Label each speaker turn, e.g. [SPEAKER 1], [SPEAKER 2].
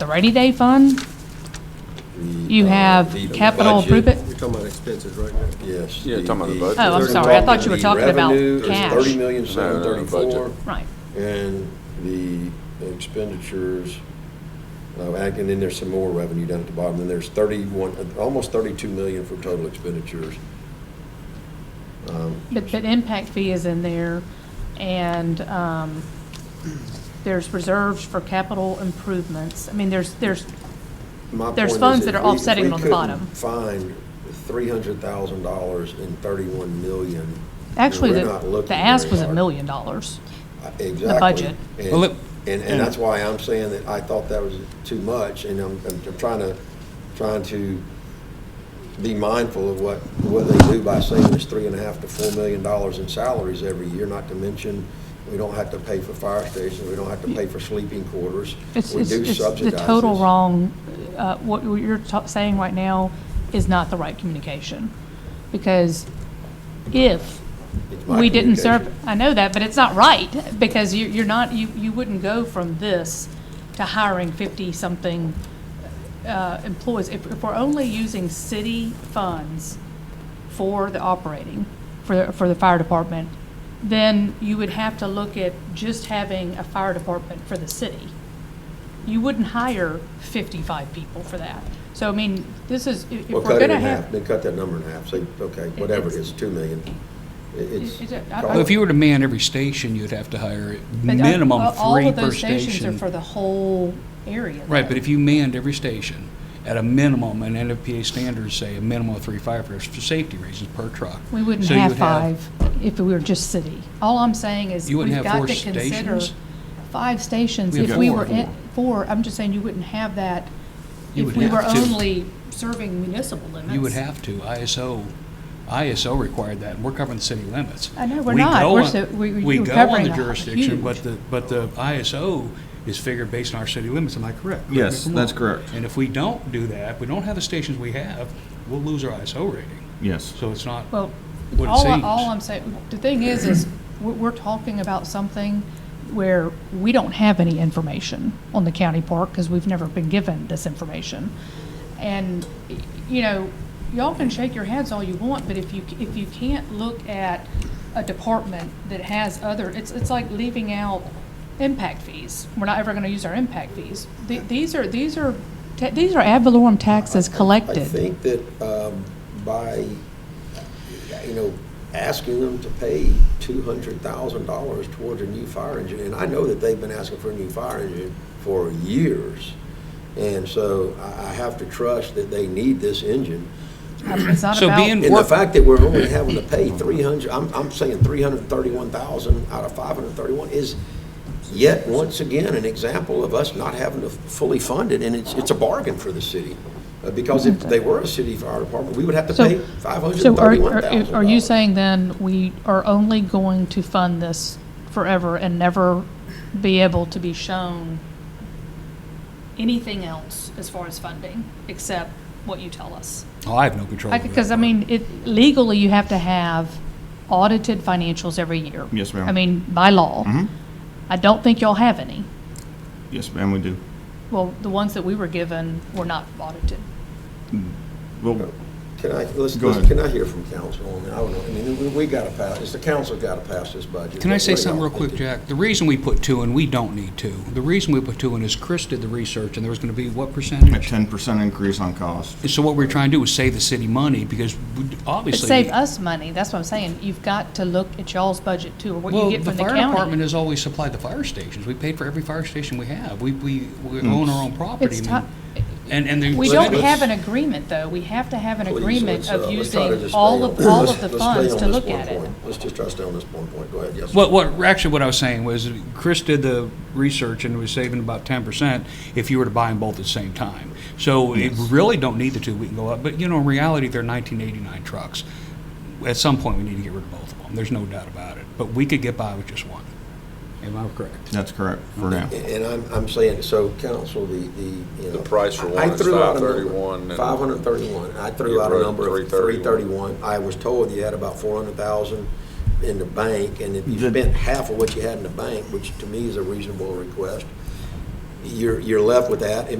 [SPEAKER 1] the rainy day fund? You have
[SPEAKER 2] Uh, the
[SPEAKER 1] capital
[SPEAKER 2] budget.
[SPEAKER 1] approve it?
[SPEAKER 3] You're talking about expenses right now.
[SPEAKER 2] Yes.
[SPEAKER 4] Yeah, talking about the budget.
[SPEAKER 1] Oh, I'm
[SPEAKER 2] They're
[SPEAKER 1] sorry. I thought you were
[SPEAKER 2] the
[SPEAKER 1] talking about
[SPEAKER 2] revenue is
[SPEAKER 1] cash.
[SPEAKER 2] Thirty million, seven
[SPEAKER 4] No, no, no,
[SPEAKER 2] thirty-four,
[SPEAKER 4] budget.
[SPEAKER 1] Right.
[SPEAKER 2] and the expenditures, uh, and then there's some more revenue down at the bottom, and there's thirty-one, uh, almost thirty-two million for total expenditures. Um,
[SPEAKER 1] But, but impact fee is in there, and, um, there's reserves for capital improvements. I mean, there's, there's,
[SPEAKER 2] My
[SPEAKER 1] There's
[SPEAKER 2] point is
[SPEAKER 1] funds that are
[SPEAKER 2] if we- if
[SPEAKER 1] offsetting
[SPEAKER 2] we
[SPEAKER 1] on the
[SPEAKER 2] couldn't
[SPEAKER 1] bottom.
[SPEAKER 2] Find three hundred thousand dollars in thirty-one million. then
[SPEAKER 1] actually,
[SPEAKER 2] we're
[SPEAKER 1] the,
[SPEAKER 2] not looking
[SPEAKER 1] the ask
[SPEAKER 2] very
[SPEAKER 1] was a
[SPEAKER 2] hard.
[SPEAKER 1] million dollars.
[SPEAKER 2] Uh, Exactly.
[SPEAKER 1] budget.
[SPEAKER 2] And-
[SPEAKER 5] Well, it-
[SPEAKER 2] And, and
[SPEAKER 5] and-
[SPEAKER 2] that's why I'm saying that I thought that was too much, and I'm, I'm I'm trying to, trying to be mindful of what, what they do by saying it's three and a half to four million dollars in salaries every year, not to mention, we don't have to pay for fire stations, we don't have to pay for sleeping quarters.
[SPEAKER 1] It's,
[SPEAKER 2] We
[SPEAKER 1] it's,
[SPEAKER 2] do
[SPEAKER 1] it's the
[SPEAKER 2] subsidize
[SPEAKER 1] total
[SPEAKER 2] this.
[SPEAKER 1] wrong, uh, what you're ta- saying right now is not the right communication. Because if
[SPEAKER 2] It's my
[SPEAKER 1] we didn't serve,
[SPEAKER 2] communication.
[SPEAKER 1] I know that, but it's not right, because you, you're not, you, you wouldn't go from this to hiring fifty-something, uh, employees. If, if we're only using city funds for the operating, for, the- for the fire department, then you would have to look at just having a fire department for the city. You wouldn't hire fifty-five people for that. So, I mean, this is, if if
[SPEAKER 2] Well,
[SPEAKER 1] we're
[SPEAKER 2] cut it
[SPEAKER 1] gonna
[SPEAKER 2] in half,
[SPEAKER 1] have.
[SPEAKER 2] then cut that number in half, say, okay, whatever it
[SPEAKER 1] it's-
[SPEAKER 2] is, two million. It- It's.
[SPEAKER 1] It's a- I-
[SPEAKER 2] call
[SPEAKER 5] Well, if
[SPEAKER 2] it-
[SPEAKER 5] you were to man every station, you'd have to hire
[SPEAKER 1] But, uh,
[SPEAKER 5] minimum
[SPEAKER 1] uh, All
[SPEAKER 5] three
[SPEAKER 1] of
[SPEAKER 5] per
[SPEAKER 1] those stations are
[SPEAKER 5] station.
[SPEAKER 1] for the whole area.
[SPEAKER 5] Right,
[SPEAKER 1] though.
[SPEAKER 5] but if you manned every station at a minimum, and NFPA standards say a minimum of three firefighters for safety reasons per truck.
[SPEAKER 1] We wouldn't
[SPEAKER 5] So you
[SPEAKER 1] have
[SPEAKER 5] would have-
[SPEAKER 1] five if we were just city. All I'm saying is
[SPEAKER 5] You
[SPEAKER 1] we've
[SPEAKER 5] wouldn't have
[SPEAKER 1] got
[SPEAKER 5] four
[SPEAKER 1] to consider
[SPEAKER 5] stations?
[SPEAKER 1] five stations.
[SPEAKER 5] We have
[SPEAKER 1] If we
[SPEAKER 5] four.
[SPEAKER 1] were, in- four, I'm just saying you wouldn't have that
[SPEAKER 5] You
[SPEAKER 1] if
[SPEAKER 5] would
[SPEAKER 1] we were
[SPEAKER 5] have to.
[SPEAKER 1] only serving municipal limits.
[SPEAKER 5] You would have to, ISO, ISO required that, and we're covering the city limits.
[SPEAKER 1] I know, we're
[SPEAKER 5] We
[SPEAKER 1] not.
[SPEAKER 5] go
[SPEAKER 1] We're
[SPEAKER 5] on-
[SPEAKER 1] so- we- we-
[SPEAKER 5] We
[SPEAKER 1] we're
[SPEAKER 5] go on
[SPEAKER 1] covering
[SPEAKER 5] the
[SPEAKER 1] a
[SPEAKER 5] jurisdiction, but
[SPEAKER 1] huge-
[SPEAKER 5] the, but the ISO is figured based on our city limits, am I correct? Correct me
[SPEAKER 4] Yes,
[SPEAKER 5] if I'm
[SPEAKER 4] that's
[SPEAKER 5] wrong.
[SPEAKER 4] correct.
[SPEAKER 5] And if we don't do that, we don't have the stations we have, we'll lose our ISO rating.
[SPEAKER 4] Yes.
[SPEAKER 5] So it's not
[SPEAKER 1] Well,
[SPEAKER 5] what it
[SPEAKER 1] all, I-
[SPEAKER 5] seems.
[SPEAKER 1] all I'm saying, the thing is, is we're, we're talking about something where we don't have any information on the county park because we've never been given this information. And, y- you know, y'all can shake your heads all you want, but if you, c- if you can't look at a department that has other, it's, it's like leaving out impact fees. We're not ever going to use our impact fees. Th- These are, these are, ta- these are ad valorem taxes collected.
[SPEAKER 2] I think that um, by, you know, asking them to pay two hundred thousand dollars towards a new fire engine, and I know that they've been asking for a new fire engine for years. And so I, I have to trust that they need this engine.
[SPEAKER 1] It's not
[SPEAKER 5] So
[SPEAKER 1] about-
[SPEAKER 5] being-
[SPEAKER 2] And the
[SPEAKER 5] Work-
[SPEAKER 2] fact that we're only having to pay three hundred, I'm, I'm saying three hundred and thirty-one thousand out of five hundred and thirty-one is yet once again an example of us not having to fully fund it, and it's, it's a bargain for the city. Uh, Because if they were a city fire department, we would have to
[SPEAKER 1] So-
[SPEAKER 2] pay five hundred
[SPEAKER 1] So
[SPEAKER 2] and
[SPEAKER 1] are,
[SPEAKER 2] thirty-one
[SPEAKER 1] are
[SPEAKER 2] thousand.
[SPEAKER 1] are you saying then we are only going to fund this forever and never be able to be shown anything else as far as funding, except what you tell us?
[SPEAKER 5] Oh, I have no control. over that
[SPEAKER 1] Because, I
[SPEAKER 5] part.
[SPEAKER 1] mean, it, legally, you have to have audited financials every year.
[SPEAKER 6] Yes, ma'am.
[SPEAKER 1] I mean, by law.
[SPEAKER 6] Mhm.
[SPEAKER 1] I don't think y'all have any.
[SPEAKER 6] Yes, ma'am, we do.
[SPEAKER 1] Well, the ones that we were given were not audited.
[SPEAKER 6] Well,
[SPEAKER 2] Can I, let's,
[SPEAKER 6] Go
[SPEAKER 2] let's-
[SPEAKER 6] ahead.
[SPEAKER 2] can I hear from council on that? I don't know, I mean, we, we gotta pass, it's the council gotta pass this budget.
[SPEAKER 5] Can I say
[SPEAKER 2] What do
[SPEAKER 5] something
[SPEAKER 2] y'all
[SPEAKER 5] real quick,
[SPEAKER 2] think?
[SPEAKER 5] Jack? The reason we put two in, we don't need two. The reason we put two in is Chris did the research, and there was going to be what
[SPEAKER 6] a
[SPEAKER 5] percentage?
[SPEAKER 6] ten percent increase on cost.
[SPEAKER 5] And so what we're trying to do is save the city money, because we-
[SPEAKER 1] But
[SPEAKER 5] obviously.
[SPEAKER 1] save us money, that's what I'm saying, you've got to look at y'all's budget too, or what you
[SPEAKER 5] Well,
[SPEAKER 1] get
[SPEAKER 5] the
[SPEAKER 1] from the
[SPEAKER 5] fire
[SPEAKER 1] county.
[SPEAKER 5] department has always supplied the fire stations. We paid for every fire station we have. We, we, we own our own property.
[SPEAKER 1] It's
[SPEAKER 5] I mean,
[SPEAKER 1] ti-
[SPEAKER 5] And, and the.
[SPEAKER 1] We
[SPEAKER 2] Let's-
[SPEAKER 1] don't have an agreement, though. We have to have an
[SPEAKER 2] Please,
[SPEAKER 1] agreement
[SPEAKER 2] let's, uh,
[SPEAKER 1] of
[SPEAKER 2] let's try to
[SPEAKER 1] using
[SPEAKER 2] just
[SPEAKER 1] all
[SPEAKER 2] stay
[SPEAKER 1] of,
[SPEAKER 2] on-
[SPEAKER 1] all
[SPEAKER 2] let's-
[SPEAKER 1] of the
[SPEAKER 2] let's stay
[SPEAKER 1] funds
[SPEAKER 2] on
[SPEAKER 1] to
[SPEAKER 2] this
[SPEAKER 1] look
[SPEAKER 2] one
[SPEAKER 1] at it.
[SPEAKER 2] point. Let's just try to stay on this one point, go ahead, yes.
[SPEAKER 5] What, what, actually what I was saying was, Chris did the research and was saving about ten percent if you were to buy them both at the same time. So we really don't need the two, we can go up, but you know, in reality, they're nineteen eighty-nine trucks. At some point, we need to get rid of both of them, there's no doubt about it, but we could get by with just one. Am I correct?
[SPEAKER 6] That's correct for now.
[SPEAKER 2] And I'm, I'm saying, so council, the, the, you know.
[SPEAKER 4] The price for
[SPEAKER 2] I- I
[SPEAKER 4] one is
[SPEAKER 2] threw out a number,
[SPEAKER 4] 531, and-
[SPEAKER 2] 531. I threw
[SPEAKER 4] You
[SPEAKER 2] out a
[SPEAKER 4] wrote
[SPEAKER 2] number of
[SPEAKER 4] 331.
[SPEAKER 2] 331. I was told you had about 400,000 in the bank, and if you
[SPEAKER 6] The-
[SPEAKER 2] spent half of what you had in the bank, which to me is a reasonable request, you're, you're left with that, and